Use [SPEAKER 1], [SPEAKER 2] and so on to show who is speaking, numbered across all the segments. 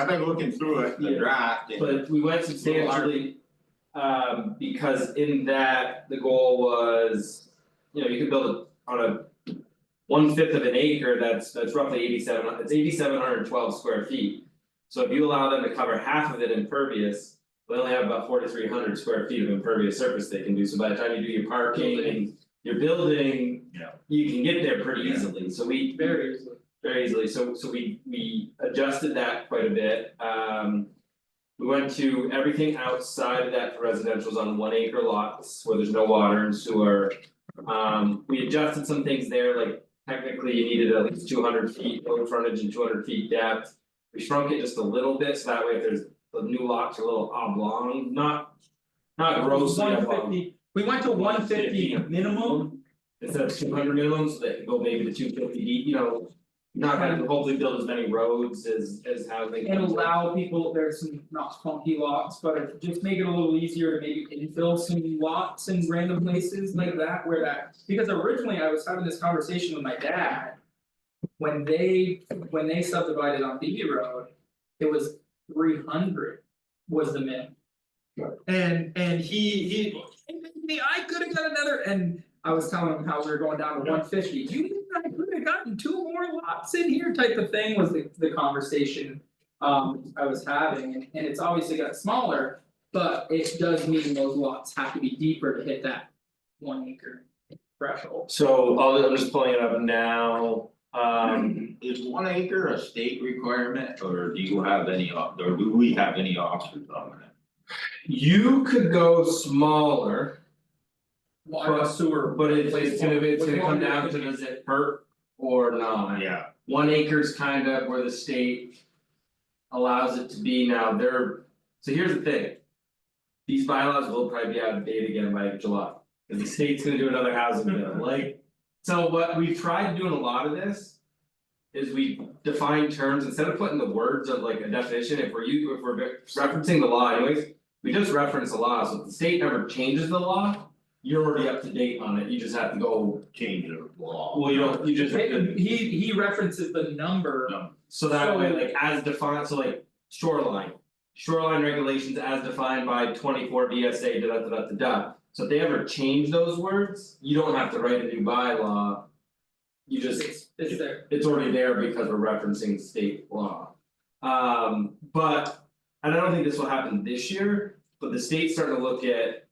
[SPEAKER 1] I've been looking through it, the
[SPEAKER 2] Yeah.
[SPEAKER 1] draft, and
[SPEAKER 2] But we went substantially, um, because in that, the goal was, you know, you can build a- on a. One fifth of an acre, that's that's roughly eighty seven, it's eighty seven hundred twelve square feet. So if you allow them to cover half of it impervious, they only have about forty three hundred square feet of impervious surface they can do, so by the time you do your parking and your building.
[SPEAKER 1] Yeah.
[SPEAKER 2] You can get there pretty easily, so we
[SPEAKER 3] Very easily.
[SPEAKER 2] very easily, so so we we adjusted that quite a bit, um. We went to everything outside of that for residential's on one acre lots where there's no water and sewer. Um, we adjusted some things there, like technically you needed at least two hundred feet road frontage and two hundred feet depth. We shrunk it just a little bit, so that way if there's the new lots are a little oblong, not not grossly oblong.
[SPEAKER 3] One fifty, we went to one fifty
[SPEAKER 2] 150.
[SPEAKER 3] minimum,
[SPEAKER 2] Instead of two hundred minimum, so they can go maybe to two fifty deep, you know. Not gonna hopefully build as many roads as as housing.
[SPEAKER 3] and allow people, there's some not funky lots, but if- just make it a little easier to maybe infill some lots in random places like that where that. Because originally I was having this conversation with my dad. When they, when they subdivided on Beatty Road, it was three hundred was the minimum. And and he he, me, I could have got another, and I was telling him how we were going down to one fifty, you, mean I could have gotten two more lots in here type of thing was the the conversation um I was having, and and it's obviously got smaller, but it does mean those lots have to be deeper to hit that one acre threshold.
[SPEAKER 2] So I'll I'm just pulling it up now, um
[SPEAKER 1] is one acre a state requirement, or do you have any, op- or do we have any options on it?
[SPEAKER 2] you could go smaller,
[SPEAKER 3] Water,
[SPEAKER 2] But-
[SPEAKER 3] sewer,
[SPEAKER 2] but it's it's gonna it's gonna come
[SPEAKER 3] Wastewater.
[SPEAKER 2] down to does it hurt or not?
[SPEAKER 1] Yeah.
[SPEAKER 2] One acre's kind of where the state allows it to be now, They're so here's the thing. These bylaws will probably be out of date again by July, because the state's gonna do another housing bill, like. So what we've tried doing a lot of this. Is we define terms, instead of putting the words of like a definition, if we're you, if we're referencing the law anyways. We just reference the law, so if the state ever changes the law, you're already up to date on it, you just have to go,
[SPEAKER 1] Change of law.
[SPEAKER 2] well, you don't, you just.
[SPEAKER 3] It- He he references the number,
[SPEAKER 1] No,
[SPEAKER 2] So that way, like as defined, so like shoreline. Shoreline regulations as defined by twenty four BSA da da da da da da. So if they ever change those words, you don't have to write a new bylaw. You just,
[SPEAKER 3] it's it's there,
[SPEAKER 2] it's already there because we're referencing state law. Um, but, and I don't think this will happen this year, but the state's starting to look at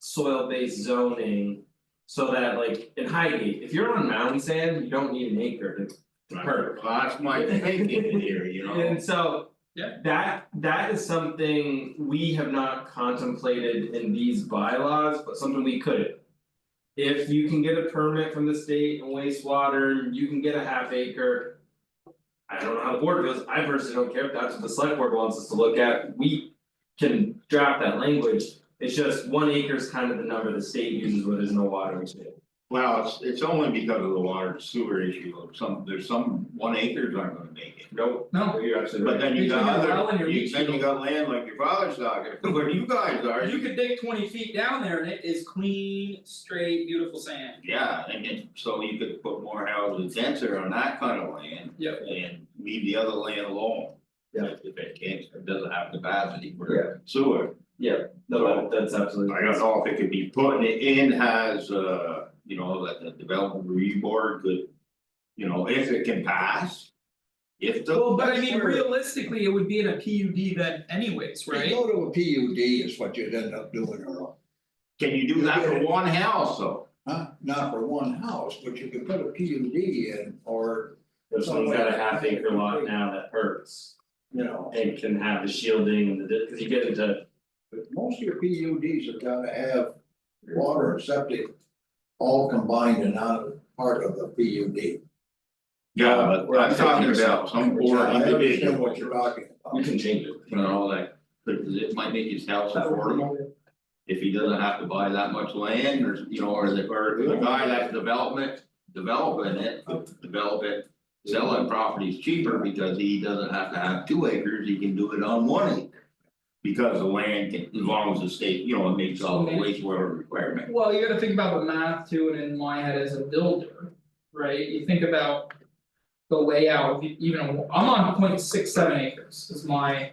[SPEAKER 2] soil-based zoning. So that like in Highgate, if you're on mountain sand, you don't need an acre to
[SPEAKER 1] well, that's my thinking here, you know,
[SPEAKER 2] and so.
[SPEAKER 3] Yeah.
[SPEAKER 2] That that is something we have not contemplated in these bylaws, but something we could. If you can get a permit from the state and wastewater, you can get a half acre. I don't know how the board feels, I personally don't care if that's what the select board wants us to look at, we can draft that language. It's just one acre is kind of the number the state uses where there's no water and shit.
[SPEAKER 1] well, it's it's only because of the water and sewer issue, of some, there's some, one acres aren't gonna make it.
[SPEAKER 2] Nope,
[SPEAKER 3] no,
[SPEAKER 2] you're absolutely right.
[SPEAKER 1] But then you got
[SPEAKER 3] Between your well and your
[SPEAKER 1] other, you
[SPEAKER 3] leach
[SPEAKER 1] then you
[SPEAKER 3] field.
[SPEAKER 1] got land like your father's talking, where you guys are,
[SPEAKER 3] you could dig twenty feet down there and it is clean, straight, beautiful sand.
[SPEAKER 1] Yeah, and then, so you could put more houses denser on that kind of land.
[SPEAKER 3] Yep.
[SPEAKER 1] And leave the other land alone.
[SPEAKER 2] Yeah.
[SPEAKER 1] If it can't, if it doesn't have capacity for sewer,
[SPEAKER 2] No, that- that's absolutely.
[SPEAKER 1] I don't know if it could be putting it in has, uh, you know, that the development review board could. You know, if it can pass. If the.
[SPEAKER 3] Well, but I mean
[SPEAKER 4] Sure.
[SPEAKER 3] realistically, it would be in a P U D then anyways,
[SPEAKER 4] You
[SPEAKER 3] right?
[SPEAKER 4] go to a PUD is what you'd end up doing or,
[SPEAKER 1] Can you do that for one house though?
[SPEAKER 4] huh, not for one house, but you could put a PUD in or,
[SPEAKER 2] If someone's got a half acre lot now, that hurts.
[SPEAKER 4] you know.
[SPEAKER 2] and can have the shielding and the, cause you get into,
[SPEAKER 4] But most of your PUDs have gotta have water and septic all combined and not part of the PUD.
[SPEAKER 1] Yeah, but I'm talking about some
[SPEAKER 4] Which
[SPEAKER 1] poor
[SPEAKER 4] I
[SPEAKER 1] individual,
[SPEAKER 4] understand what you're talking
[SPEAKER 2] you
[SPEAKER 4] about.
[SPEAKER 2] can change it.
[SPEAKER 1] you know, that, because it might make his house affordable. if he doesn't have to buy that much land or, you know, or the, or the guy that's development, developing it, develop it. Selling properties cheaper because he doesn't have to have two acres, he can do it on one acre. Because the land can, as long as the state, you know, it meets all the wastewater requirement.
[SPEAKER 3] Well, you gotta think about the math too, and in my head as a builder, right, you think about. the layout, of e- even, a- I'm on point six seven acres is my